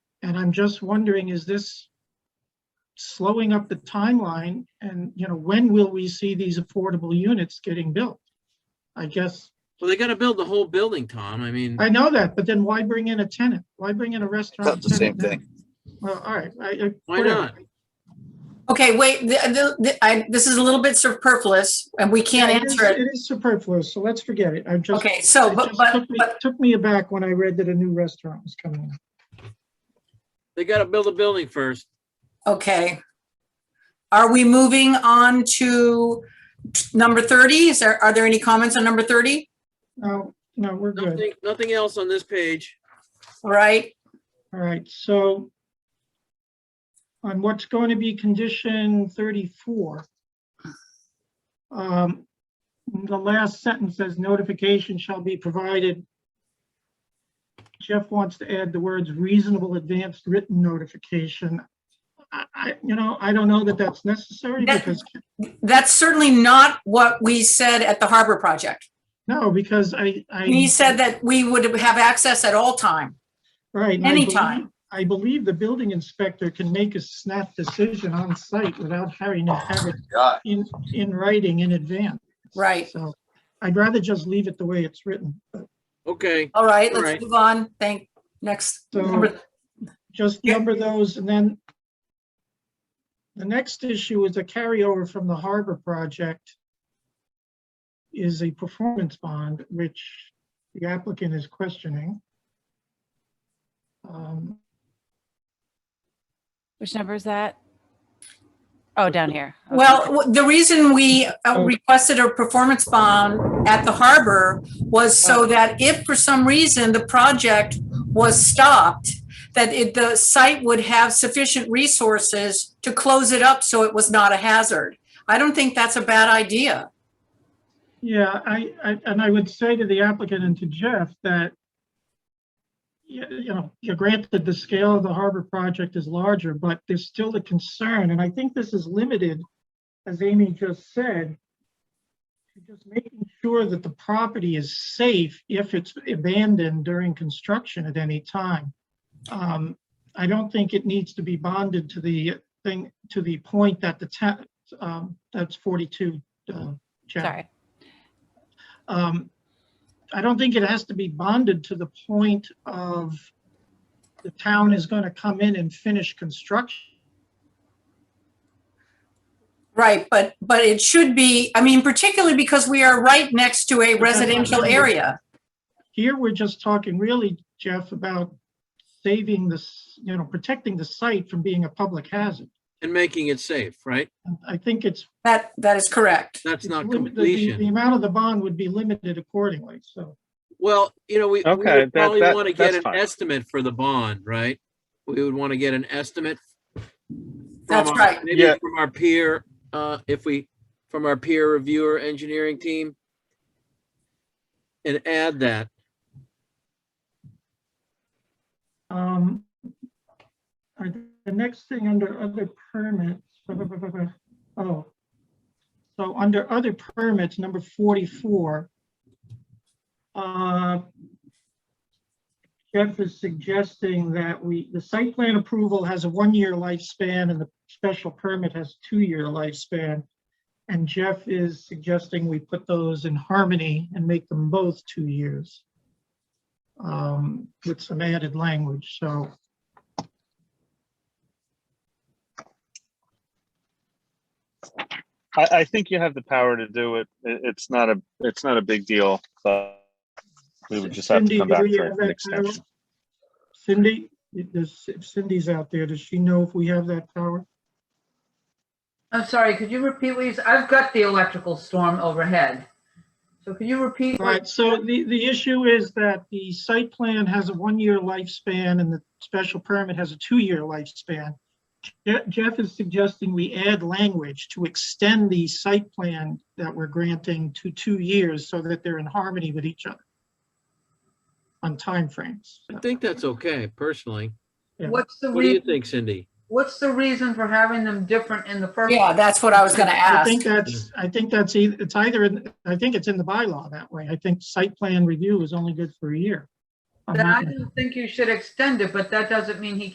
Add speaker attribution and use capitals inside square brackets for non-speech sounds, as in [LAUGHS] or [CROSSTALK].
Speaker 1: And I'm just wondering, is this slowing up the timeline? And, you know, when will we see these affordable units getting built? I guess,
Speaker 2: Well, they gotta build the whole building, Tom. I mean,
Speaker 1: I know that, but then why bring in a tenant? Why bring in a restaurant?
Speaker 3: That's the
Speaker 1: tenant now?
Speaker 3: same thing.
Speaker 1: Well, all right, I, I.
Speaker 2: Why
Speaker 1: whatever.
Speaker 2: not?
Speaker 4: Okay, wait, the, the, the- I, this is a little bit superfluous and we can't
Speaker 1: It is-
Speaker 4: answer it.
Speaker 1: It is superfluous, so let's forget it. I'm just.
Speaker 4: Okay, so,
Speaker 1: it
Speaker 4: but,
Speaker 1: just
Speaker 4: but,
Speaker 1: took me-
Speaker 4: but,
Speaker 1: Took me aback when I read that a new restaurant was coming. in.
Speaker 2: they gotta build a building first.
Speaker 4: okay. Are we moving on to t- number 30? Is there, are there any comments on number 30?
Speaker 1: No, no, we're good.
Speaker 2: Nothing, nothing else on this page.
Speaker 4: All right,
Speaker 1: All right, so on what's going to be condition thirty-four. um, The last sentence says notification shall be provided. Jeff wants to add the words reasonable advanced written notification. I, I, you know, I don't know that that's necessary
Speaker 4: That-
Speaker 1: because,
Speaker 4: that's certainly not what we said at the Harbor Project.
Speaker 1: no, because I, I.
Speaker 4: We said that we would have access at all time.
Speaker 1: Right. and I believe-
Speaker 4: Anytime.
Speaker 1: I believe the building inspector can make a snap decision on site without having to have it
Speaker 3: Yeah,
Speaker 1: in, in writing in advance.
Speaker 4: Right.
Speaker 1: So I'd rather just leave it the way it's written.
Speaker 2: Okay,
Speaker 4: All right,
Speaker 2: All right.
Speaker 4: let's move on. Thank, next.
Speaker 1: So-
Speaker 4: number-
Speaker 1: Just
Speaker 4: Yeah.
Speaker 1: number those and then the next issue is a carryover from the harbor project is a performance bond, which the applicant is questioning. Um,
Speaker 5: Which number is that? Oh, down here. Okay.
Speaker 4: Well, w- the reason we uh,
Speaker 1: Oh.
Speaker 4: requested a performance bond at the harbor was so that if for some reason the project was stopped, that it, the site would have sufficient resources to close it up so it was not a hazard. I don't think that's a bad idea.
Speaker 1: Yeah, I, I, and I would say to the applicant and to Jeff that you, you know, you granted the scale of the harbor project is larger, but there's still the concern, and I think this is limited, as Amy just said, to just making sure that the property is safe if it's abandoned during construction at any time. Um, I don't think it needs to be bonded to the thing, to the point that the ta- um, that's forty-two, uh, chapter
Speaker 5: Sorry.
Speaker 1: um, I don't think it has to be bonded to the point of the town is gonna come in and finish construction.
Speaker 4: Right, but, but it should be, I mean, particularly because we are right next to a residential area.
Speaker 1: Here, we're just talking really, Jeff, about saving this, you know, protecting the site from being a public hazard.
Speaker 2: and making it safe, right?
Speaker 1: And I think it's.
Speaker 4: That, that is correct.
Speaker 2: That's
Speaker 1: it's
Speaker 2: not
Speaker 1: limited- the- the- The
Speaker 2: completion.
Speaker 1: amount of the bond would be limited accordingly, so.
Speaker 2: Well, you know, we we
Speaker 6: Okay,
Speaker 2: would
Speaker 6: that-
Speaker 2: probably
Speaker 6: that-
Speaker 2: wanna get
Speaker 6: that's
Speaker 2: an
Speaker 6: fine.
Speaker 2: estimate for the bond, right? We would wanna get an estimate. from
Speaker 4: That's
Speaker 2: our-
Speaker 4: right.
Speaker 2: Maybe
Speaker 6: Yeah.
Speaker 2: from our peer, uh, if we, from our peer reviewer engineering team. And add that.
Speaker 1: Um, all right, the next thing under other permits, [LAUGHS] blah, blah, blah, blah, blah. oh. So under other permits, number forty-four. uh, Jeff is suggesting that we, the site plan approval has a one-year lifespan and the special permit has two-year lifespan. And Jeff is suggesting we put those in harmony and make them both two years um, with some added language, so.
Speaker 6: I, I think you have the power to do it. It- it's not a, it's not a big deal, but we would just have
Speaker 1: Cindy,
Speaker 6: to come
Speaker 1: do
Speaker 6: back
Speaker 1: we
Speaker 6: for
Speaker 1: have that uh,
Speaker 6: an extension.
Speaker 1: Cindy, does- if Cindy's out there, does she know if we have that power?
Speaker 7: I'm sorry, could you repeat what you said? I've got the electrical storm overhead. So could you repeat? what-
Speaker 1: Right, so the, the issue is that the site plan has a one-year lifespan and the special permit has a two-year lifespan. Je- Jeff is suggesting we add language to extend the site plan that we're granting to two years so that they're in harmony with each other on timeframes.
Speaker 2: I think that's okay, personally.
Speaker 1: Yeah.
Speaker 7: What's the
Speaker 2: What do you
Speaker 7: re,
Speaker 2: think, Cindy?
Speaker 7: what's the reason for having them different in the first?
Speaker 4: Yeah, that's what I was gonna
Speaker 1: I
Speaker 4: ask.
Speaker 1: think that's, I think that's, eith- it's either, in I think it's in the bylaw that way. I think site plan review is only good for a year. I'm
Speaker 7: Then
Speaker 1: not
Speaker 7: I don't think you should extend it, but that doesn't mean he